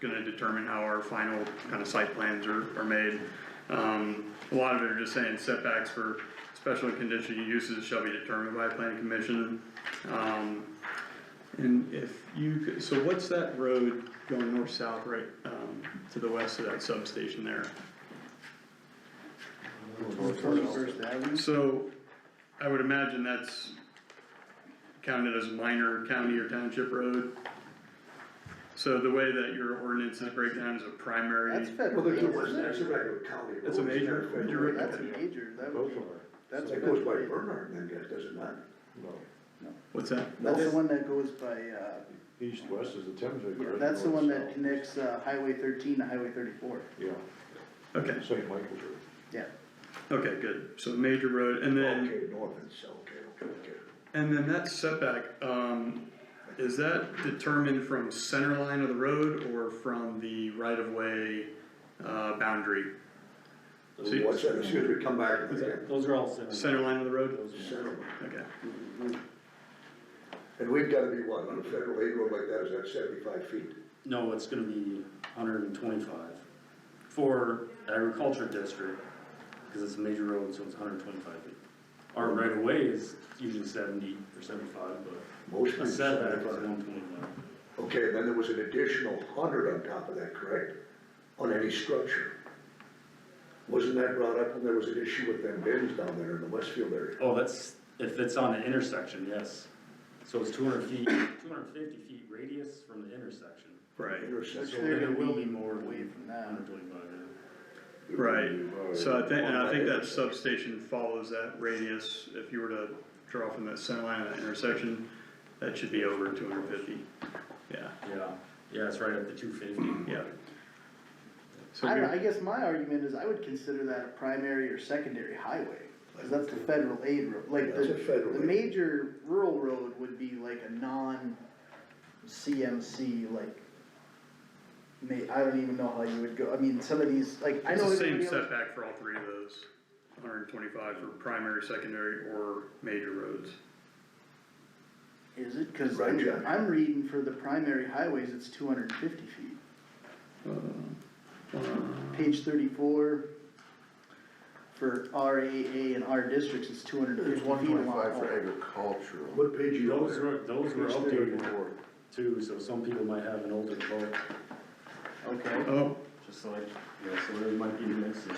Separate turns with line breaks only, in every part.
gonna determine how our final kind of site plans are, are made. Um, a lot of it are just saying setbacks for special and conditional uses shall be determined by planning commission. Um, and if you, could- so what's that road going north-south right, um, to the west of that substation there?
Twenty-first Avenue?
So, I would imagine that's counted as minor county or township road. So the way that your ordinance is breakdown is a
That's
primary,
federal,
Well, there's,
road,
a-
isn't
there's
it?
a regular county.
That's a
road, it's
major-
not federal.
major road.
That's a major, that would
Both
be,
of them.
that's
It
federal.
goes by
road.
Bernard, then, guys, does it not?
No,
what's that?
That's the one that goes by, uh,
east, west is the Thames River.
yeah,
right?
that's the
North,
one that
south.
connects, uh, Highway thirteen to Highway thirty-four,
Yeah,
Okay,
St. Michael's River.
yeah.
okay, good, so major road, and then,
Okay, north and south, okay, okay, okay.
and then that setback, um, is that determined from center line of the road or from the right-of-way, uh, boundary? So you-
What's that, excuse me, come back. and again.
Those are all center.
Center line of the road?
Those are-
Settle.
Okay,
And we've gotta be what, on a federal aid road like that, is that seventy-five feet?
No, it's gonna be hundred and twenty-five for agriculture district, cause it's a major road, so it's hundred and twenty-five feet. Our right of way is usually seventy or seventy-five,
Most
but a
streets
setback is
75.
one twenty-five.
Okay, and then there was an additional hundred on top of that, correct? On any structure? Wasn't that brought up when there was an issue with them bins down there in the Westfield area?
Oh, that's, if it's on an intersection, yes. So it's two hundred feet, two hundred and fifty feet radius from the intersection.
right.
Which
Intersection.
they're
And
gonna
it will
be
be more
away
than
from that.
hundred twenty-five, yeah.
Right, so I think, and I think that substation follows that radius, if you were to draw from that center line of that intersection, that should be over two hundred fifty, yeah,
Yeah, yeah, it's right at the two fifty.
yeah. So
I don't, I
we,
guess my argument is I would consider that a primary or secondary highway, cause that's the federal aid road, like
That's a
the,
federal
the
aid.
major rural road would be like a non CMC, like, ma- I don't even know how you would go, I mean, some of these, like, I
it's
know.
the same
everybody else-
setback for all three of those, hundred and twenty-five for primary, secondary, or major roads.
Is it? Cause
Right,
I'm,
Jack.
I'm reading for the primary highways, it's two hundred and fifty feet. Page thirty-four, for RAA and R districts, it's two hundred and fifty
There's
feet.
one twenty-five
along
for
all.
agricultural.
What page you
Those
on?
were, those were
Page
updated too, so some people might have an older vote,
Okay,
Oh,
just like, you know, so there might be a mix in.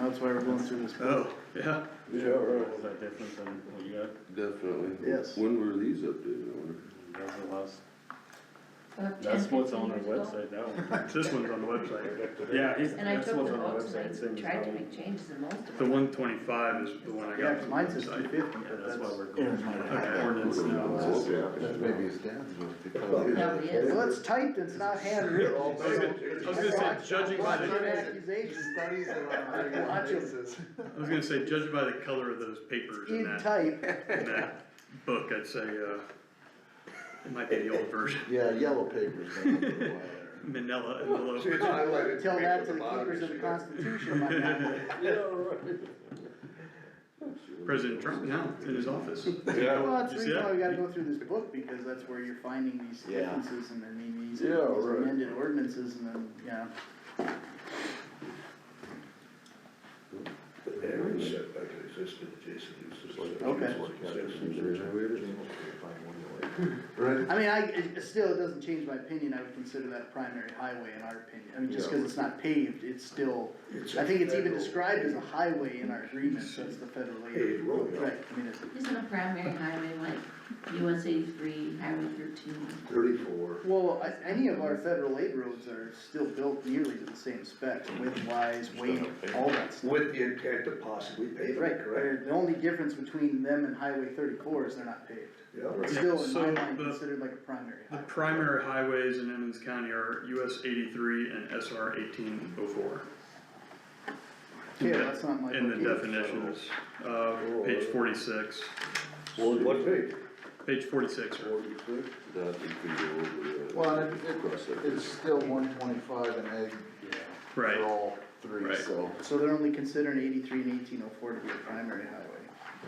that's why we're going through this.
oh, yeah,
Yeah, right.
Was that different than what you got?
Definitely.
Yes.
When were these updated, I wonder?
That's the last,
About 10,
that's what's
15
on our
Uh, years ago.
website now.
this one's on the website,
Yeah, he's-
And I
that's
took
what's
the
on our
notes
website, same
and I
as
tried to
how.
make changes in most of them.
the one twenty-five is the one I
Yeah,
got
'cause
from the
mine says two
website.
fifty, but
Yeah, that's why
that's,
we're going by ordinance now.
That may be his dad's one.
Probably is.
well, it's typed, it's not handwritten.
They're all
so-
big.
I was gonna say, judging by
Watch your
the,
accusations.
Studies that
on a regular basis.
I was gonna say, judging by the color of those papers in
In
that,
type,
in that book, I'd say, uh, it might be the old version.
Yeah, yellow papers. don't look like
Manila envelope.
See, it's highlighted.
tell
pink
that
at
to the
bottom,
keepers
you
of the
see that?
Constitution, my God.
that.
President Trump now in his office.
Yeah.
Well, that's the
You see
reason why
that?
we gotta go through this book, because that's where you're finding these
Yeah.
differences and then maybe these
Yeah,
these
right.
amended ordinances and then, yeah.
Every setback existed, Jason used to.
Okay.
Right,
I mean, I, it, it still, it doesn't change my opinion, I would consider that a primary highway in our opinion, I mean, just cause it's not paved, it's still,
It's
I think it's even
federal.
described as a highway in our agreement, so it's the federal aid.
Paved road, yeah.
Right, I mean, it's,
Isn't a primary highway like US eighty-three, Highway thirteen?
Thirty-four.
well, I- any of our federal aid roads are still built nearly to the same specs, width wise, weight, all that stuff.
With the intent to possibly pave it,
Right,
correct?
they're- the only difference between them and Highway thirty-four is they're not paved.
Yeah.
It's Still, in my
So
mind,
the-
considered like a primary
The
highway.
primary highways in Emmons County are US eighty-three and SR eighteen oh four.
Okay, that's not my.
In the
book either.
definitions, uh, page forty-six,
What page?
page forty-six, or
that you can go over.
Well, and it- it-
Cross that.
It's still one twenty-five and egg for
right,
all three,
Right.
so.
So they're only considering eighty-three and eighteen oh four to be a primary highway.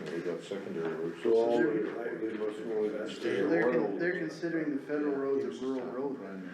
They got secondary roads.
So all-
They must know that.
So they're, con- they're considering the federal roads a rural road right now.